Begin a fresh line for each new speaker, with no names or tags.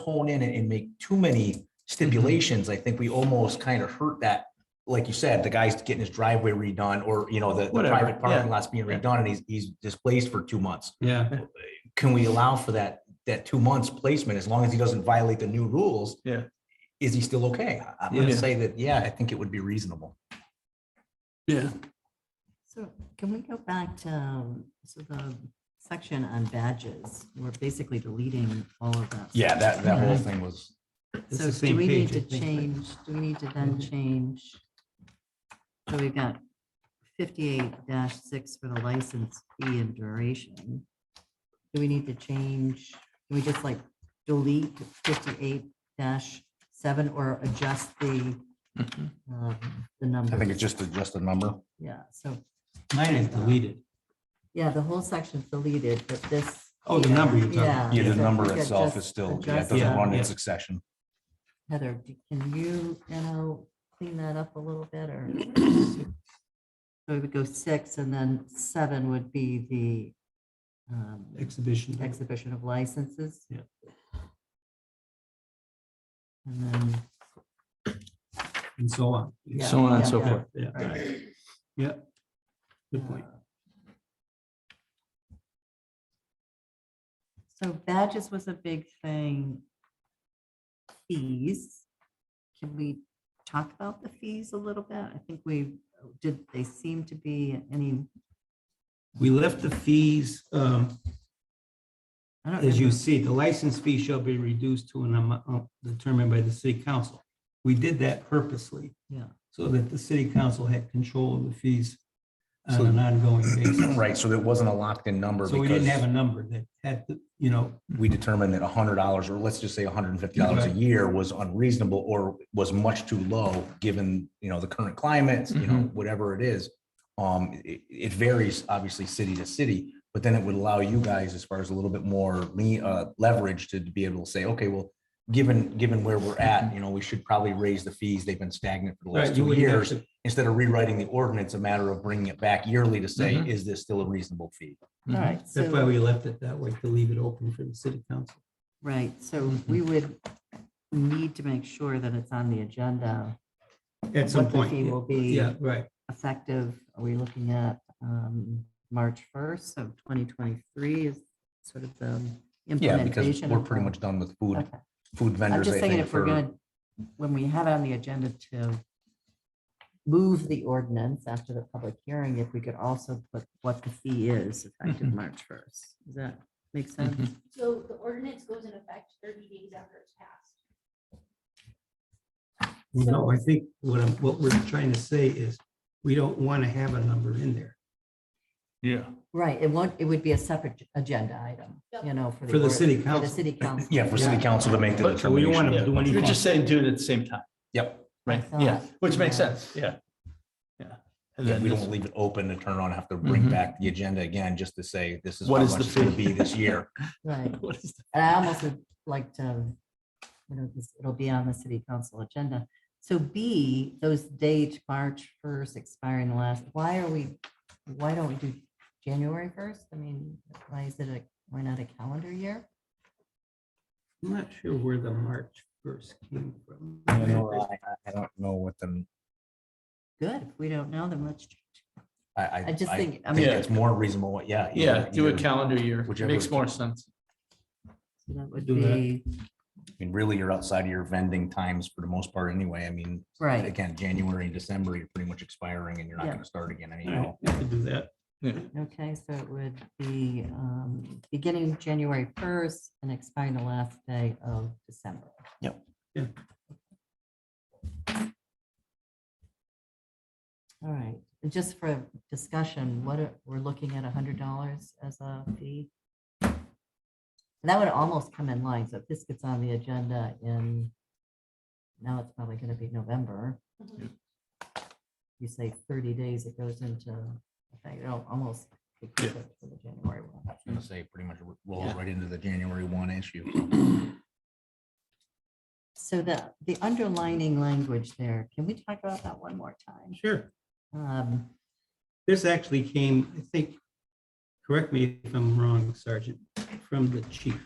hone in and- and make too many stipulations, I think we almost kind of hurt that. Like you said, the guy's getting his driveway redone or, you know, the the
Whatever,
private parking lot's being
yeah.
redone and he's, he's displaced for two months.
Yeah,
Can we allow for that, that two months placement as long as he doesn't violate the new rules?
Yeah.
Is he still okay? I- I'm gonna
Yeah.
say that, yeah, I think it would be reasonable.
yeah.
So can we go back to, um, so the section on badges, we're basically deleting all of that.
that,
that whole
thing was.
It's
So
the
do
same
we need
page,
to
I think, Mm-hmm. but-
change, do we need to then change? So we've got fifty-eight six for the license fee and duration. Do we need to change, can we just like delete fifty-eight seven or adjust the,
Mm-hmm.
um, the number?
just, just a number.
Yeah, so,
Mine is deleted.
yeah, the whole section's deleted, but this.
Oh, the
here,
number you're talking
Yeah.
about.
so we could just adjust
doesn't
that.
run in Yeah.
succession.
Heather, do- can you, you know, clean that up a little bit or? So we would go six and then seven would be the um,
Exhibition.
exhibition of licenses.
Yeah.
And then.
And so on.
Yeah, So on and yeah, so yeah.
forth. Yeah,
right,
yeah. Good point.
uh, So badges was a big thing. Fees. Can we talk about the fees a little bit? I think we, did they seem to be any?
We left the fees, um,
I don't
as you
remember.
see, the license fee shall be reduced to an amount uh, determined by the city council. We did that purposely
Yeah.
so that the city council had control of the fees on
So-
an ongoing basis.
Right, so it wasn't a locked-in number.
So we didn't
because-
have a number that had, to, you know,
we determined that hundred dollars, or let's just say hundred and fifty dollars a
Right.
year was unreasonable or was much too low, given, you know, the current climate, you
Mm-hmm.
know, whatever it is. Um, it, it varies obviously city to city, but then it would allow you guys as far as a little bit more lean, uh, leverage to be able to say, okay, well, given, given where we're at, you know, we should probably raise the fees. They've been stagnant for the
Mm-hmm. right,
last
you
two
wouldn't have
years.
to.
Instead of rewriting the ordinance, a matter of bringing it back yearly to say,
Mm-hmm.
is this still a reasonable fee?
All right,
That's why
so,
we left it that way, to leave it open for the city council.
right, so
Mm-hmm.
we would need to make sure that it's on the agenda.
At some
what the
point.
fee
yeah.
Will be
Yeah, right.
effective, are we looking at um, March 1st of 2023 is sort of the
Yeah, because
implementation?
we're
of
pretty
the-
much done with food,
Okay.
food
I'm
vendors.
just
I
thinking
think,
if
for-
we're gonna, when we have on the agenda to move the ordinance after the public hearing, if we could also put what the fee is
Mm-hmm.
effective March 1st. Does that make sense?
So the ordinance goes in effect thirty days after it's passed.
No, I think what I'm, what we're trying to say is, we don't want to have a number in there
Yeah.
Right, it won't, it would be a separate agenda item, you know, for the.
for the
ord-
city
For the
council.
city council.
Yeah, for city council to make the
But so we don't want
determination.
to do anything.
You're just saying do it at the same time,
Yep.
right?
I
Yeah,
thought,
which makes
yeah.
sense, yeah. Yeah. And
Yeah,
then
we don't
this-
leave it open to turn on, have to bring
Mhm.
back the agenda again, just to say, this Mm-hmm. is.
What
how
is the
much it's gonna
fee?
Be this year.
Right.
what is the-
And I almost would like to, you know, this, it'll be on the city council agenda. So B, those dates, March first expiring the last, why are we, why don't we do January first? I mean, why is it a, why not a calendar year?
I'm not sure where the March first came from.
I don't know what the,
Good, if we don't know, then let's,
I, I.
I just think, I
I think
mean,
it's more reasonable, yeah.
Yeah,
either-
do a
either-
calendar year,
whichever
makes
is-
more sense.
so that would
Do that.
be,
I mean, really, you're outside of your vending times for the most part anyway. I mean,
right,
again, January and December, you're pretty much expiring and you're not
Yeah.
gonna start again anyhow.
All right, I could do that.
okay, so it would be, um, beginning January first and expiring the last day of December.
Yep.
Yeah.
All right, and just for discussion, what, are- we're looking at a hundred dollars as a fee? And That would almost come in line, so if this gets on the agenda in, now it's probably gonna be November.
Mhm.
You say thirty days, it goes into, effect. it'll almost. be perfect for the January one.
I'm gonna say pretty much rolls
Yeah.
right into the January one issue.
So the, the underlining language there, can we talk about that one more time?
Sure.
Um,
This actually came, I think, correct me if I'm wrong, Sergeant, from the chief.